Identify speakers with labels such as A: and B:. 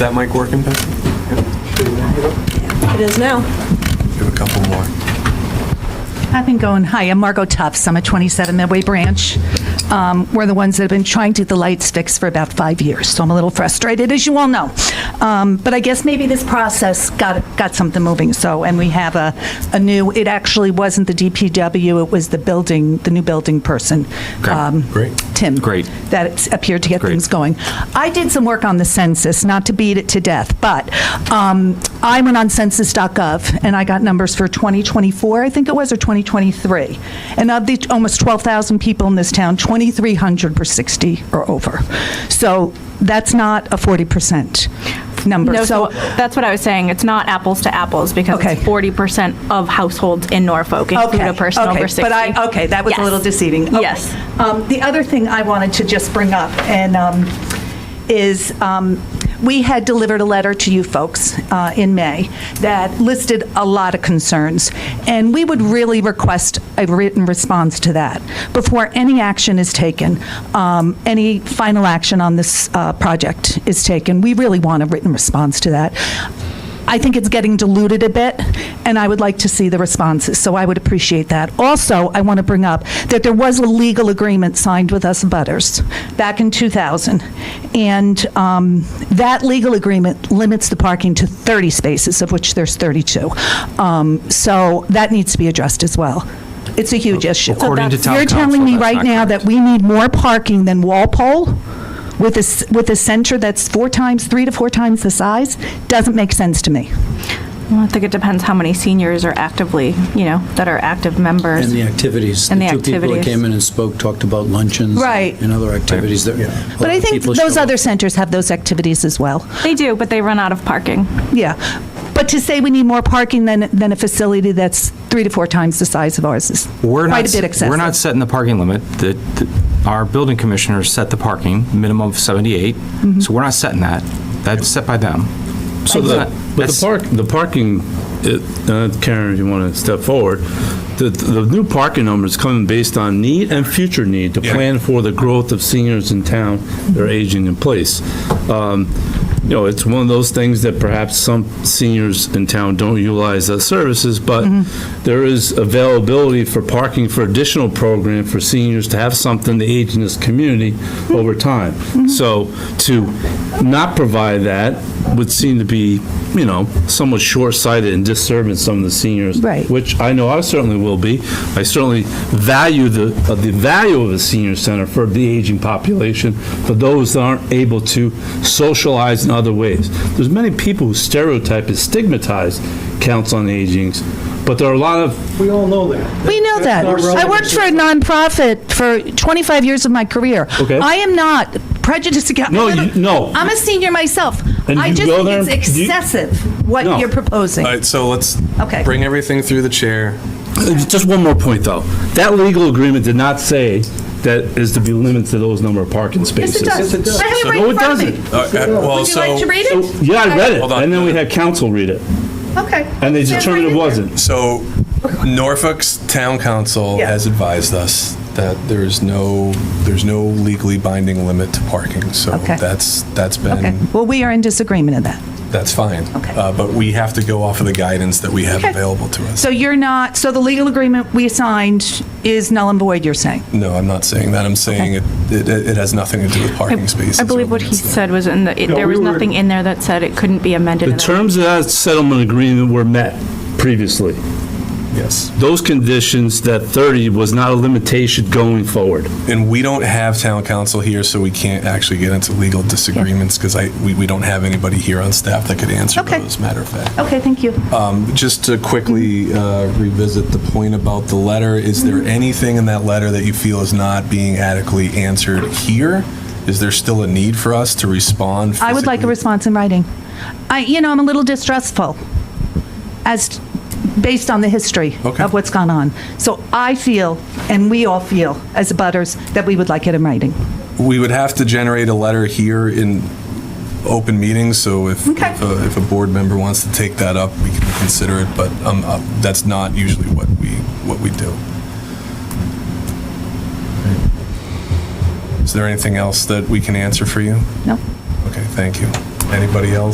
A: That mic working, Pat?
B: It is now.
A: We have a couple more.
C: I've been going, hi, I'm Margot Tufts, I'm at 27 Midway Branch. Um, We're the ones that have been trying to get the lights fixed for about five years, so I'm a little frustrated, as you all know. Um, But I guess maybe this process got, got something moving, so, and we have a, a new, it actually wasn't the DPW, it was the building, the new building person. um,
A: great.
C: Tim.
D: Great.
C: That it's appeared to get
D: Great.
C: things going. I did some work on the census, not to beat it to death, but um, I went on census.gov and I got numbers for 2024, I think it was, or 2023. And of the almost 12,000 people in this town, 2,300 were 60 or over. So that's not a 40% number.
E: No, so
C: So
E: that's what I was saying. It's not apples to apples because
C: Okay.
E: it's 40% of households in Norfolk include
C: Okay,
E: a person
C: okay,
E: over 60.
C: But I, okay, that was a
E: Yes.
C: little deceiving. Okay.
E: Yes.
C: Um, The other thing I wanted to just bring up, and, um, is um, we had delivered a letter to you folks uh, in May that listed a lot of concerns, and we would really request a written response to that before any action is taken, um, any final action on this uh, project is taken. We really want a written response to that. I think it's getting diluted a bit, and I would like to see the responses, so I would appreciate that. Also, I want to bring up that there was a legal agreement signed with us butters back in 2000, and um, that legal agreement limits the parking to 30 spaces, of which there's 32. Um, So that needs to be addressed as well. It's a huge issue.
D: According to town council,
C: You're telling me
D: that's
C: right
D: not
C: now
D: correct.
C: that we need more parking than Walpole with a, s- with a center that's four times, three to four times the size? Doesn't make sense to me.
E: Well, I think it depends how many seniors are actively, you know, that are active members.
F: And the activities.
E: And the
F: two people that
E: activities.
F: came in and spoke talked about luncheons.
C: Right.
F: And other activities that.
C: But I think
F: people
C: those
F: show up.
C: other centers have those activities as well.
E: they do, but they run out of parking.
C: Yeah. But to say we need more parking than, than a facility that's three to four times the size of ours is
D: We're
C: quite
D: not,
C: a bit excessive.
D: We're not setting the parking limit. The- the- Our building commissioners set the parking, minimum of 78,
C: Mm-hmm.
D: so we're not setting that. That's set by them.
G: So
D: It's
G: the,
D: not-
G: but the
D: that's-
G: park, the parking, it- uh, Karen, if you want to step forward, the, the new parking number is coming based on need and future need to plan for the growth of seniors in town that are aging in place. Um, You know, it's one of those things that perhaps some seniors in town don't utilize as services, but there is availability for parking for additional program for seniors to have something to age in this community over time. So to not provide that would seem to be, you know, somewhat short-sighted and disserving some of the seniors.
C: Right.
G: Which I know I certainly will be. I certainly value the, uh, the value of a senior center for the aging population, for those that aren't able to socialize in other ways. There's many people who stereotype and stigmatize counts on agings, but there are a lot of,
F: We all know that.
C: We know that. I worked for a nonprofit for 25 years of my career.
G: Okay.
C: I am not prejudiced against.
G: No, you- no.
C: I'm a senior myself.
G: And
C: I
G: you
C: just
G: go
C: think
G: there
C: it's
G: and you-
C: excessive what
G: No.
C: you're proposing.
A: All right, so let's
C: Okay.
A: bring everything through the chair. Uh,
G: uh, just one more point, though. That legal agreement did not say that is to be limited to those number of parking
C: Yes,
G: spaces.
C: it does.
F: it does.
C: I have it
A: So-
C: right
G: No,
C: in
G: it
C: front of me.
G: doesn't.
A: Uh, uh, Well,
C: Would you like to
A: so,
C: read it?
G: Yeah, I read it,
A: Hold on.
G: and then we had council read it,
C: Okay.
G: and they
C: It's right
G: determined it
C: in there.
G: wasn't.
A: so Norfolk's town council
C: Yeah.
A: has advised us that there is no, there's no legally binding limit to parking. So
C: Okay.
A: that's, that's
C: Okay.
A: been,
C: Well, we are in disagreement in that.
A: that's fine.
C: Okay.
A: Uh, But we have to go off of the guidance that we have
C: Okay.
A: available to us.
C: So you're not, so the legal agreement we signed is null and void, you're saying?
A: No, I'm not saying that. I'm saying it, it, it has nothing to do with parking spaces.
E: I believe what he said was in the, it, there was nothing in there that said it couldn't be amended.
G: The
E: in that-
G: terms of that settlement agreement were met previously.
A: Yes.
G: Those conditions, that 30 was not a limitation going forward.
A: And we don't have town council here, so we can't actually get into legal disagreements because I, we, we don't have anybody here on staff that could answer
C: Okay.
A: those, matter of fact.
C: Okay, thank you.
A: Um, Just to quickly uh, revisit the point about the letter, is
C: Mm-hmm.
A: there anything in that letter that you feel is not being adequately answered here? Is there still a need for us to respond?
C: I would like a
A: physically?
C: response in writing. I, you know, I'm a little distrustful as, based on the history
A: Okay.
C: of what's gone on. So I feel, and we all feel, as butters, that we would like it in writing.
A: We would have to generate a letter here in open meetings, so if,
C: Okay.
A: if a- if a board member wants to take that up, we can consider it, but um, uh, that's not usually what we, what we do. Is there anything else that we can answer for you?
C: No?
A: Okay, thank you. Anybody else?